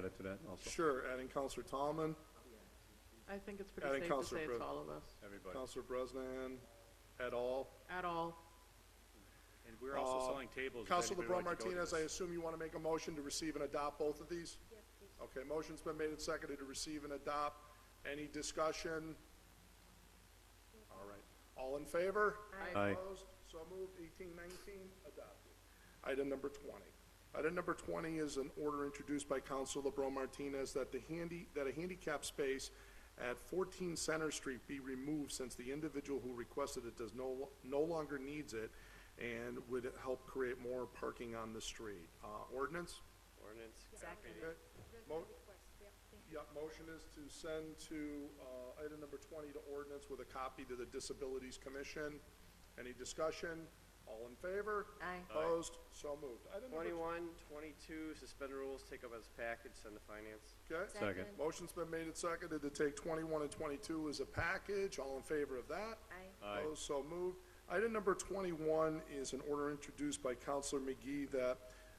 added to that also, Sure, adding Counselor Tomlin, I think it's pretty Adding safe to Counselor say it's Brose. all of us, everybody. Counselor Brosnan, et al. at all. And we're also Uh, selling tables. if Counselor anybody LeBron would like to go to Martinez, I this. assume you want to make a motion to receive and adopt both of these? Yes, please. Okay, motion's been made and seconded to receive and adopt. Any discussion? All right. All in favor? Aye. Opposed? So moved. Eighteen nineteen, adopted. Item number twenty. Item number twenty is an order introduced by Counsel LeBron Martinez that the handy, that a handicap space at fourteen Center Street be removed since the individual who requested it does no, no longer needs it and would help create more parking on the street. Uh, ordinance? Ordinance. Exactly. Okay. Mo- Yeah, motion is to send to, uh, item number twenty to ordinance with a copy to the Disabilities Commission. Any discussion? All in favor? Aye. Opposed? So moved. Item number Twenty-one, twenty-two, suspend rules, take up as package, send to finance. tw- Okay. Second, Motion's been made and seconded to take twenty-one and twenty-two as a package. All in favor of that? Aye. Opposed? So moved. Item number twenty-one is an order introduced by Counselor McGee that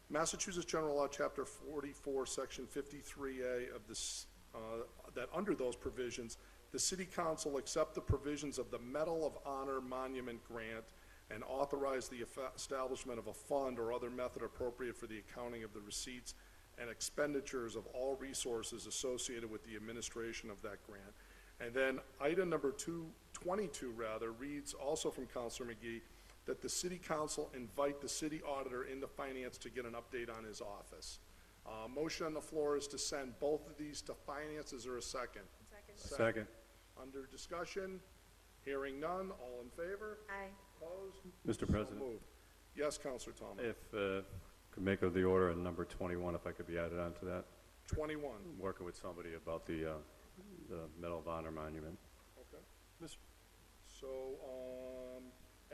Massachusetts General Law, Chapter forty-four, Section fifty-three A of this, uh, that under those provisions, the city council accept the provisions of the Medal of Honor Monument Grant and authorize the effa- establishment of a fund or other method appropriate for the accounting of the receipts and expenditures of all resources associated with the administration of that grant. And then item number two, twenty-two rather, reads also from Counselor McGee, that the city council invite the city auditor into finance to get an update on his office. Uh, motion on the floor is to send both of these to finance. Is there a second? second, Under discussion, hearing none, all in favor? Aye. Opposed? Mr. So President. moved. Yes, Counselor Tomlin. if, uh, could make of the order and number twenty-one, if I could be added on to that. Twenty-one, I'm Working with somebody about the, uh, the Medal of Honor monument. okay. So, um,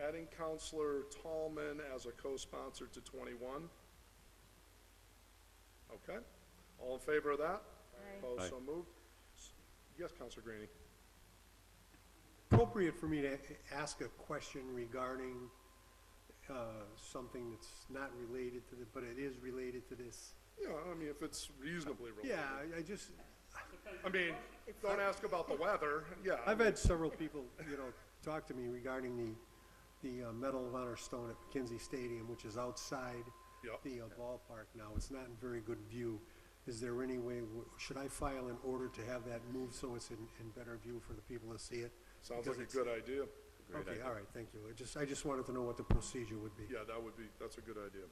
adding Counselor Tallman as a co-sponsor to twenty-one. Okay, all in favor of that? Opposed, so moved. S- Yes, Counselor Greenie. appropriate for me to a- ask a question regarding uh, something that's not related to the, but it is related to this. Yeah, I mean, if it's reasonably related. Yeah, I- I just, I mean, don't ask about the weather, yeah. I I've mean, had several people, you know, talk to me regarding the, the uh, Medal of Honor stone at McKenzie Stadium, which is outside Yep. the uh, ballpark now. It's not in very good view. Is there any way, w- should I file an order to have that moved so it's in, in better view for the people to see it? Sounds like Because a it's- good idea. Okay, all right, thank you. I just, I just wanted to know what the procedure would be. Yeah, that would be, that's a good idea.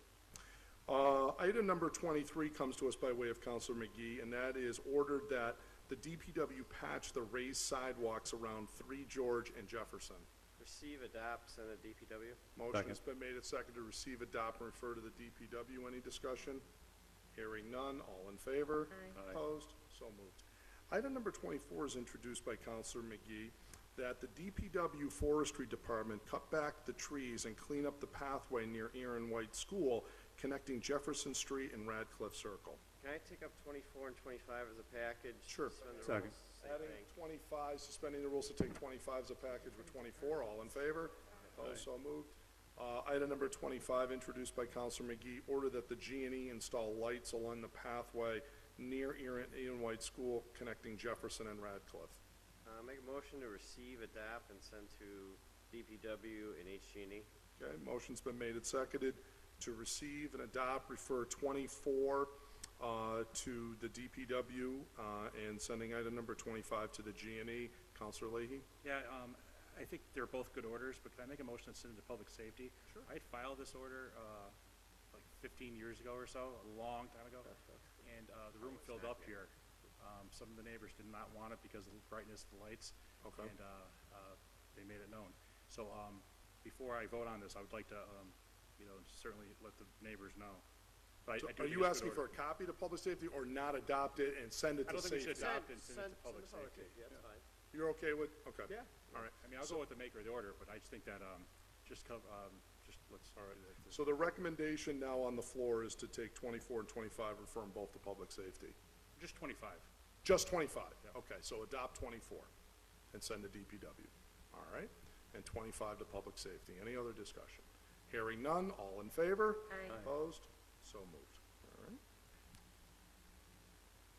Uh, Item number 23 comes to us by way of Counselor McGee, and that is ordered that the DPW patch the raised sidewalks around 3 George and Jefferson. Receive, adopt, send to DPW. Motion's been made and seconded to receive, adopt, and refer to the DPW. Any discussion? Hearing none, all in favor? Opposed? So moved. Item number twenty-four is introduced by Counselor McGee, that the DPW Forestry Department cut back the trees and clean up the pathway near Aaron White School connecting Jefferson Street and Radcliffe Circle. Can I take up twenty-four and twenty-five as a package? Sure. Suspend the Second. rules, same Adding thing. twenty-five, suspending the rules to take twenty-five as a package with twenty-four, all in favor? Opposed, so moved. Uh, item number twenty-five, introduced by Counselor McGee, order that the G and E install lights along the pathway near Ian, Ian White School connecting Jefferson and Radcliffe. Uh, make a motion to receive, adopt, and send to DPW and E. HG&E. Okay, motion's been made and seconded to receive and adopt, refer twenty-four, uh, to the DPW, uh, and sending item number twenty-five to the G and E. Counselor Leahy? Yeah, um, I think they're both good orders, but can I make a motion to send it to public safety? Sure. I had filed this order, uh, like fifteen years ago or so, a long time ago, and, uh, the room filled up here. Um, some of the neighbors did not want it because of the brightness of the lights. Okay. And, uh, uh, they made it known. So, um, before I vote on this, I would like to, um, you know, certainly let the neighbors know. But I- So I Are do think it's you good asking for order. a copy to public safety or not adopt it and send it I to don't think we should safety? adopt it and send it Send- to public send it to safety. Yeah, that's fine. You're okay with, okay. Yeah. All right. I mean, I'll go with the maker of the order, but I just think that, um, just cover, um, just let's. All right. So the recommendation now on the floor is to take twenty-four and twenty-five, refer them both to public safety. Just twenty-five. Just twenty-five? Okay, so adopt twenty-four and send to DPW. All right? And twenty-five to public safety. Any other discussion? Hearing none, all in favor? Opposed? So moved.